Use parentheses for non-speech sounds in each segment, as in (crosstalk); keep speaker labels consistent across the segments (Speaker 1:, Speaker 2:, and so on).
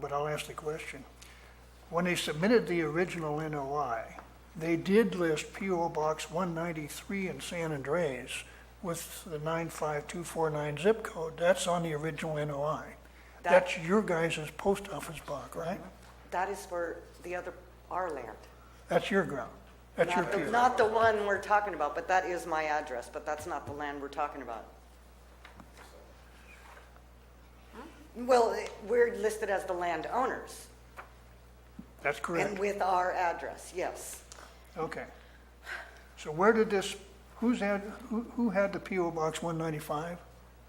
Speaker 1: but I'll ask the question. When they submitted the original NOI, they did list PO Box 193 in San Andres with the 95249 zip code. That's on the original NOI.
Speaker 2: That-
Speaker 1: That's your guys' post office block, right?
Speaker 2: That is for the other, our land.
Speaker 1: That's your ground. That's your
Speaker 2: Not the-
Speaker 1: PO.
Speaker 2: Not the one we're talking about, but that is my address, but that's not the land we're talking about. Well, it- we're listed as the landowners
Speaker 1: That's
Speaker 2: and
Speaker 1: correct.
Speaker 2: with our address, yes.
Speaker 1: Okay. So where did this, who's had, who, who had the PO Box 195?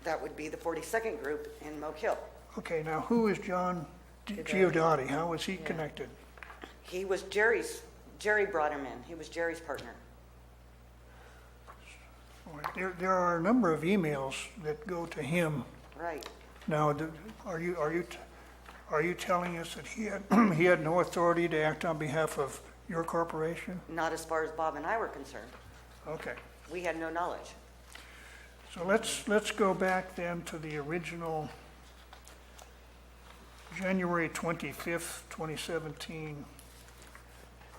Speaker 2: That would be the 42nd group in Moke Hill.
Speaker 1: Okay, now who is John G- Giudotti? How was he connected?
Speaker 2: He was Jerry's, Jerry brought him in. He was Jerry's partner.
Speaker 1: All right, There, there are a number of emails that go to him.
Speaker 2: Right.
Speaker 1: Now, do- are you, are you, t- are you telling us that he had, (clears throat) he had no authority to act on behalf of your corporation?
Speaker 2: Not as far as Bob and I were concerned.
Speaker 1: Okay,
Speaker 2: We had no knowledge.
Speaker 1: so let's, let's go back then to the original January 25th, 2017,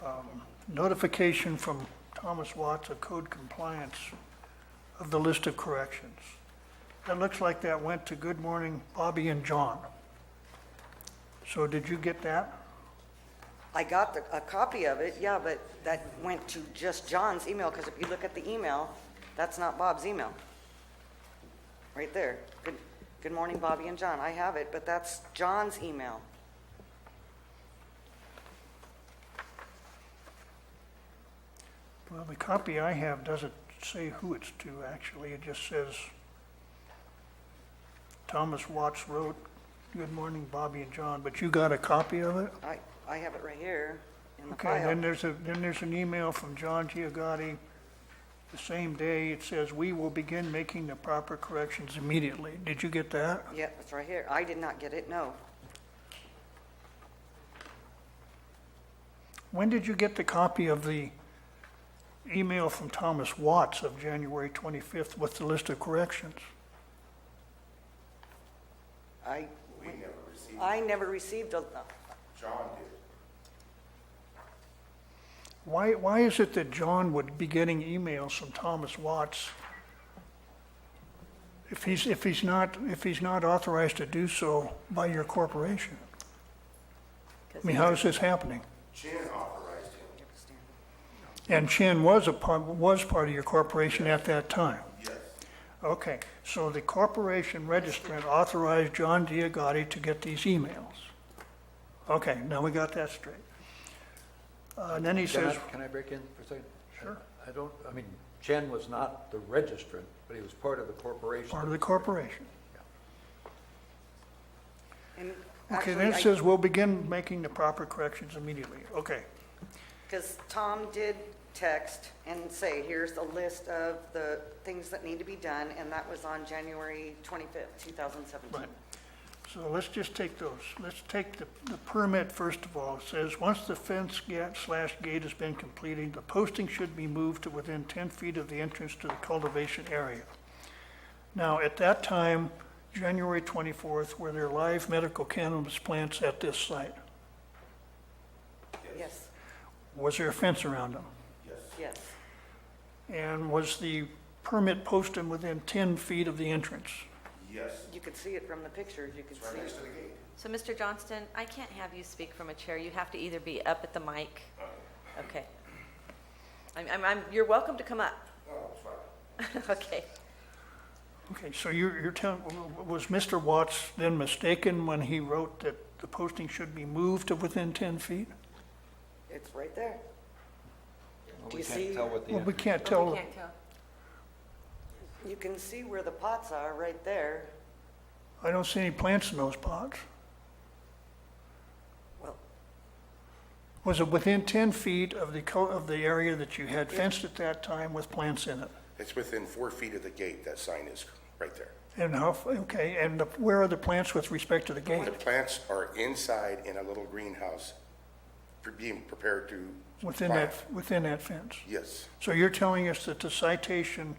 Speaker 1: um, notification from Thomas Watts of code compliance of the list of corrections. That looks like that went to Good Morning Bobby and John. So did you get that?
Speaker 2: I got the, a copy of it, yeah, but that went to just John's email, because if you look at the email, that's not Bob's email. Right there. Good, good morning, Bobby and John. I have it, but that's John's email.
Speaker 1: Well, the copy I have doesn't say who it's to, actually. It just says, Thomas Watts wrote, "Good morning, Bobby and John," but you got a copy of it?
Speaker 2: I, I have it right here in the
Speaker 1: Okay, then
Speaker 2: file.
Speaker 1: there's a, then there's an email from John Giagotti the same day. It says, "We will begin making the proper corrections immediately." Did you get that?
Speaker 2: Yeah, it's right here. I did not get it, no.
Speaker 1: When did you get the copy of the email from Thomas Watts of January 25th with the list of corrections?
Speaker 2: I. We never received. I never received a,
Speaker 1: Why, why is it that John would be getting emails from Thomas Watts if he's, if he's not, if he's not authorized to do so by your corporation? I mean, how is this happening?
Speaker 3: Chin authorized him,
Speaker 1: And Chin was a part, was part of your corporation at that time?
Speaker 3: yes.
Speaker 1: Okay, so the corporation registrant authorized John Diagotti to get these emails? Okay, now we got that straight. Uh, And then he
Speaker 4: Can I-
Speaker 1: says,
Speaker 4: Can I break in for a second?
Speaker 1: Sure.
Speaker 4: I don't, I mean, Chen was not the registrant, but he was part of the corporation.
Speaker 1: part of the corporation.
Speaker 2: and
Speaker 1: Okay, then
Speaker 2: actually,
Speaker 1: it
Speaker 2: I-
Speaker 1: says, "We'll begin making the proper corrections immediately." Okay,
Speaker 2: Because Tom did text and say, here's the list of the things that need to be done, and that was on January 25th, 2017.
Speaker 1: right. So let's just take those. Let's take the, the permit first of all. It says, "Once the fence gate slash gate has been completed, the posting should be moved to within 10 feet of the entrance to the cultivation area." Now, at that time, January 24th, were there live medical cannabis plants at this site?
Speaker 2: Yes,
Speaker 1: Was there a fence around them?
Speaker 2: yes,
Speaker 1: And was the permit posted within 10 feet of the entrance?
Speaker 3: Yes,
Speaker 2: you could see it from the pictures, you could see
Speaker 3: next
Speaker 2: it.
Speaker 3: to the gate.
Speaker 5: So, Mr. Johnston, I can't have you speak from a chair. You have to either be up at the mic. Okay. I'm, I'm, I'm, you're welcome to come up. (laughs) Okay.
Speaker 1: Okay, so you're, you're telling, was Mr. Watts then mistaken when he wrote that the posting should be moved to within 10 feet?
Speaker 2: It's right there.
Speaker 4: Well,
Speaker 2: Do
Speaker 4: We
Speaker 2: you see,
Speaker 4: can't tell what the.
Speaker 1: Well, we can't
Speaker 5: We
Speaker 1: tell,
Speaker 5: can't tell.
Speaker 2: you can see where the pots are, right there.
Speaker 1: I don't see any plants in those pots.
Speaker 2: Well,
Speaker 1: Was it within 10 feet of the, co- of the area that you had fenced at that time with plants in it?
Speaker 3: It's within four feet of the gate, that sign is, right there.
Speaker 1: And how, f- okay, and the- where are the plants with respect to the gate?
Speaker 3: The plants are inside in a little greenhouse, pre- being prepared to.
Speaker 1: Within
Speaker 3: plant.
Speaker 1: that, within that fence?
Speaker 3: Yes,
Speaker 1: So you're telling us that the citation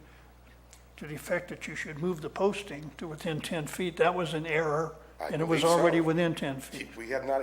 Speaker 1: to the effect that you should move the posting to within 10 feet, that was an error
Speaker 3: I
Speaker 1: And it
Speaker 3: believe
Speaker 1: was
Speaker 3: so.
Speaker 1: already within 10 feet.
Speaker 3: We have not